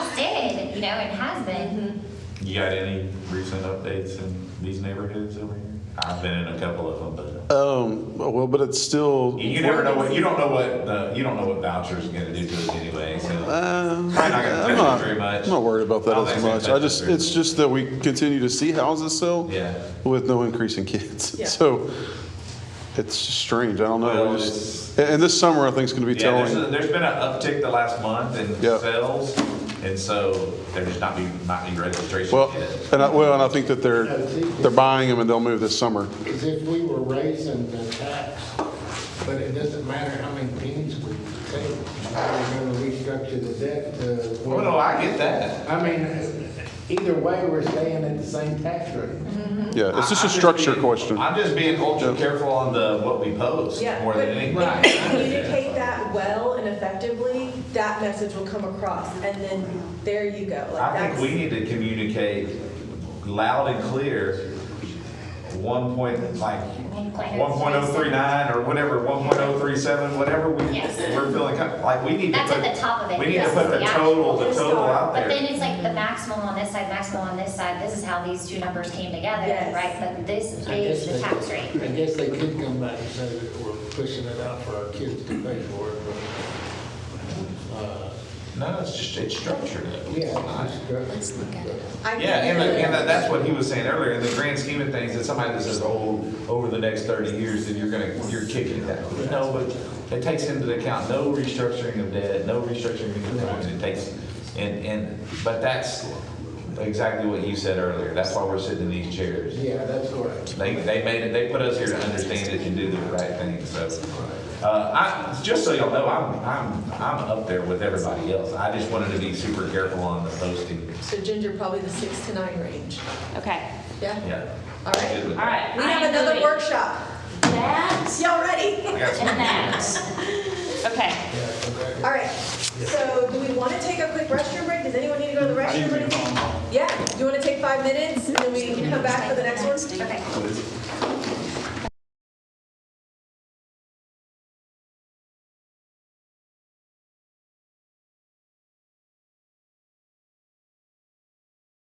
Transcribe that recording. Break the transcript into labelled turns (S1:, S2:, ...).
S1: you know, and has been.
S2: You got any recent updates in these neighborhoods over here? I've been in a couple of them, but
S3: Um, well, but it's still,
S2: you you never know what, you don't know what, the you don't know what voucher's gonna do to us anyway, so.
S3: uh,
S2: Probably not gonna
S3: I'm
S2: touch
S3: not,
S2: it very much.
S3: I'm not worried about
S2: I
S3: that
S2: don't
S3: as
S2: think it's
S3: much.
S2: gonna
S3: I
S2: touch us
S3: just,
S2: very
S3: it's
S2: much.
S3: just that we continue to see houses sell
S2: Yeah.
S3: with no increase in kids.
S4: Yeah.
S3: So it's strange. I don't know.
S2: Well,
S3: We just,
S2: it's-
S3: and and this summer, I think is going to be
S2: Yeah, there's,
S3: telling.
S2: a- there's been an uptick the last month in
S3: Yeah.
S2: sales, and so there's just not be, not any registration
S3: Well,
S2: yet.
S3: and I, well, and I think that they're, they're buying them and they'll move this summer.
S5: As if we were raising the tax, but it doesn't matter how many pennies we take. We're gonna restructure the debt to.
S2: Well, no, I get that.
S5: I mean, either way, we're staying at the same tax rate.
S1: Mm-hmm.
S3: Yeah, it's just
S2: I-
S3: a
S2: I'm
S3: structure
S2: being-
S3: question.
S2: I'm just being ultra
S3: Yeah.
S2: careful on the, what we post,
S4: Yeah,
S2: more
S4: but
S2: than anything.
S4: if you communicate that well and effectively, that message will come across, and then there you go. Like
S2: I think
S4: that's-
S2: we need to communicate loud and clear, one point, like, one point oh three nine or whatever, one point oh three seven, whatever we,
S1: Yes.
S2: we're feeling, kind- like, we need to put.
S1: That's at the top of it.
S2: We need to
S1: This
S2: put
S1: is
S2: the
S1: the
S2: total,
S1: actual
S2: the total out
S1: But then
S2: there.
S1: it's like the maximal on this side, maximal on this side, this is how these two numbers came together,
S4: Yes.
S1: right? But this
S5: I guess
S1: is the
S5: they-
S1: tax rate.
S5: I guess they could come back and say that we're pushing it out for our kids to pay for it, but, uh,
S2: No, it's just, it's structured.
S5: yeah. it's structured.
S2: Yeah,
S4: I
S2: and,
S4: think that-
S2: and that- that's what he was saying earlier, in the grand scheme of things, that somebody that says, oh, over the next thirty years, then you're gonna, you're kicking that. No, but it takes into account no restructuring of debt, no restructuring of loans, it takes, and, and, but that's exactly what you said earlier, that's why we're sitting in these chairs.
S5: Yeah, that's correct.
S2: They, they made it, they put us here to understand it and do the right thing, so. Uh, I, just so y'all know, I'm, I'm, I'm up there with everybody else, I just wanted to be super careful on the posting,
S4: So Ginger, probably the six to nine range,
S6: Okay,
S4: yeah?
S2: yeah.
S4: All right.
S2: Good.
S6: all right.
S4: We
S6: I
S4: have
S6: am
S4: another
S6: moving.
S4: workshop.
S6: That
S4: Y'all ready?
S2: I got some-
S6: and that. Okay,
S4: All right, so do we want to take a quick restroom break? Does anyone need to go to the restroom or anything? Yeah, you want to take five minutes and then we can come back for the next one? Okay.